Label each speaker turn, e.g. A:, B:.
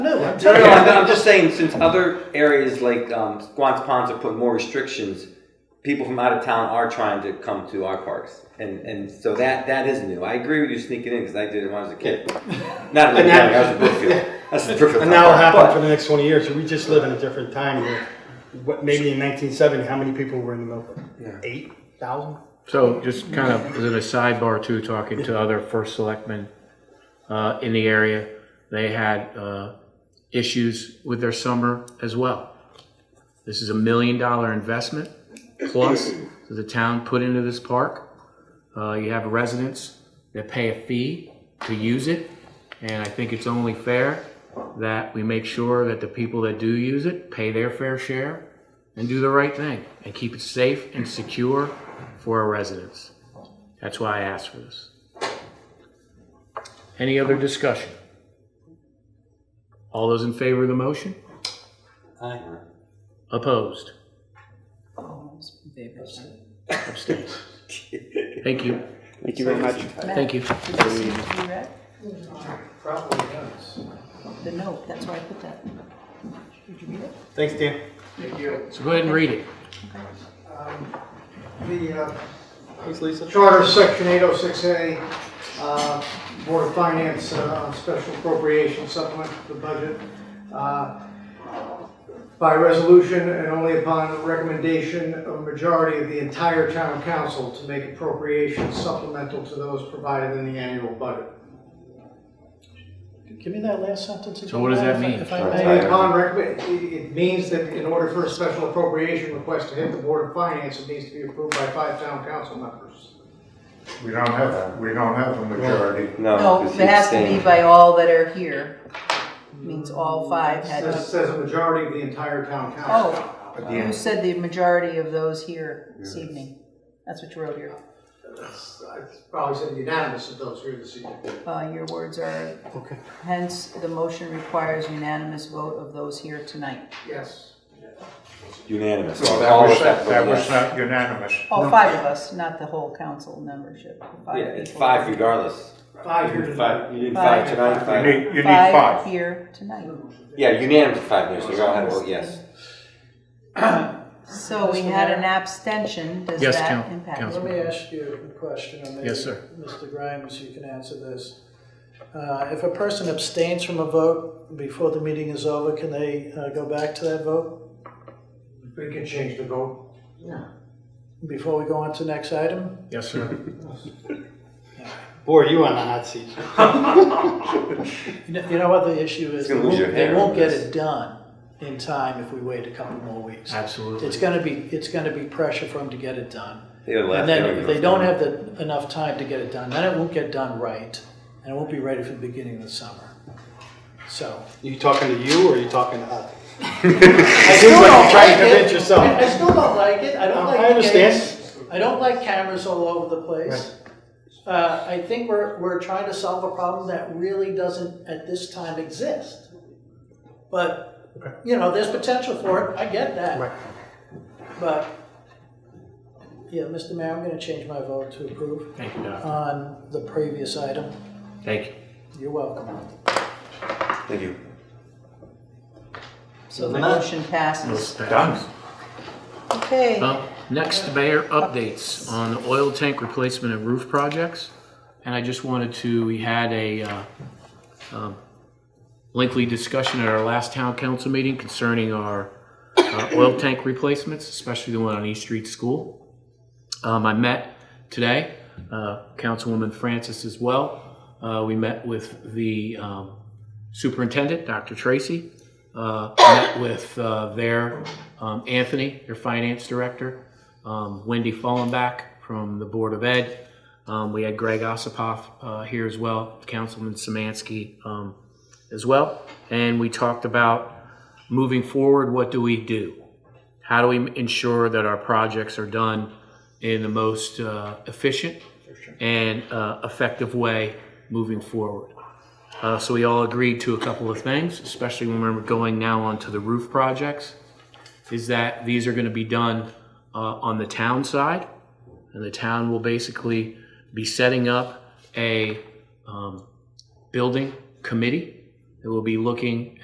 A: No, no, I'm, I'm just saying, since other areas like um, Squan's Ponds have put more restrictions, people from out of town are trying to come to our parks. And, and so that, that is new. I agree with you sneaking in, because I did it when I was a kid. Not in
B: And
A: the
B: that-
A: county, I was in Brookfield. That's the Brookfield.
B: And that will
A: Park.
B: happen for the next twenty years, we just live in a different time here. What, maybe in nineteen seventy, how many people were in the Milford? Eight thousand?
C: So just kind of as a sidebar too, talking to other first selectmen uh, in the area, they had uh, issues with their summer as well. This is a million dollar investment plus that the town put into this park. Uh, You have residents that pay a fee to use it, and I think it's only fair that we make sure that the people that do use it pay their fair share and do the right thing and keep it safe and secure for our residents. That's why I asked for this. Any other discussion? All those in favor of the motion?
A: Aye.
C: Opposed?
D: Favor, sorry.
C: Abstained? Thank you.
E: Thank you very much.
C: Thank you.
D: Did this need to be read? Probably does. The note, that's where I put that. Did you read it?
B: Thanks, Dan.
C: So go ahead and read it.
F: The uh,
B: Thanks, Lisa.
F: Charter, Section 806A, uh, Board of Finance uh, on Special Appropriation Supplement to the Budget. uh, By resolution and only upon recommendation of majority of the entire town council to make appropriations supplemental to those provided in the annual budget.
G: Give me that last sentence again.
C: So what does that
G: if I-
C: mean?
G: If I may,
F: Only upon recommend, it it means that in order for a special appropriation request to hit the Board of Finance, it needs to be approved by five town council members.
H: We don't have, we don't have a majority.
D: No,
A: No,
D: it has to be by all that are here. Means all five had
F: Says,
D: to.
F: says a majority of the entire town council.
D: Oh, you said the majority of those here this evening. That's what you wrote here.
F: I probably said unanimous of those here this evening.
D: Uh, your words are,
B: Okay.
D: hence, the motion requires unanimous vote of those here tonight.
F: Yes.
A: Unanimous.
H: So that
A: All
H: was,
A: of that
H: that
A: was
H: was
A: yes.
H: not unanimous.
D: All Oh, five of us, not the whole council membership.
A: Yeah, it's
D: people.
A: five regardless.
F: Five
A: You
F: here
A: did
F: tonight.
A: five, you did
D: Five.
A: five tonight,
H: You
A: five.
H: need, you need five.
D: here tonight.
A: Yeah, unanimous five, yes, we all had a vote yes.
D: So we had an abstention, does
C: Yes,
D: that
C: Coun-
D: impact?
C: Councilman.
G: let me ask you a question, and maybe,
C: Yes, sir.
G: Mr. Grimes, you can answer this. Uh, If a person abstains from a vote before the meeting is over, can they uh, go back to that vote
F: We can change the vote.
G: before we go on to the next item?
C: Yes, sir.
B: Boy, you on the hot seat.
G: You know- You know what the issue is?
A: It's gonna lose
G: They
A: your
G: won't-
A: hair
G: They won't
A: on
G: get
A: this.
G: it done in time if we wait a couple more weeks. It's
C: Absolutely.
G: gonna be, it's gonna be pressure for them to get it done.
A: They were left,
G: And
A: they
G: then
A: were
G: if they
A: left.
G: don't have the, enough time to get it done, then it won't get done right, and it won't be ready for the beginning of the summer. So,
B: You talking to you or you talking to us? I do like you're trying to convince
G: I
B: yourself.
G: still don't like it, I don't like.
B: I understand.
G: I don't like cameras all over the place. Uh, I think we're, we're trying to solve a problem that really doesn't at this time exist. But, you know, there's potential for it, I get
B: Right.
G: that. But, yeah, Mr. Mayor, I'm gonna change my vote to approve
C: Thank you,
G: Uh,
C: Doc.
G: on the previous item.
C: Thank you.
G: You're welcome.
A: Thank you.
D: So the motion passes.
H: Done.
D: Okay,
C: Well, next, Mayor, updates on the oil tank replacement and roof projects. And I just wanted to, we had a uh, um, lengthy discussion at our last town council meeting concerning our uh, oil tank replacements, especially the one on East Street School. Um, I met today, uh, Councilwoman Francis as well. Uh, We met with the um, superintendent, Dr. Tracy, uh, met with uh, their um, Anthony, their finance director, um, Wendy Fallenbach from the Board of Ed. Um, we had Greg Ossipoff uh, here as well, Councilman Samansky um, as well. And we talked about moving forward, what do we do? How do we ensure that our projects are done in the most uh, efficient and uh, effective way moving forward? Uh, so we all agreed to a couple of things, especially when we're going now onto the roof projects, is that these are going to be done uh, on the town side, and the town will basically be setting up a um, building committee that will be looking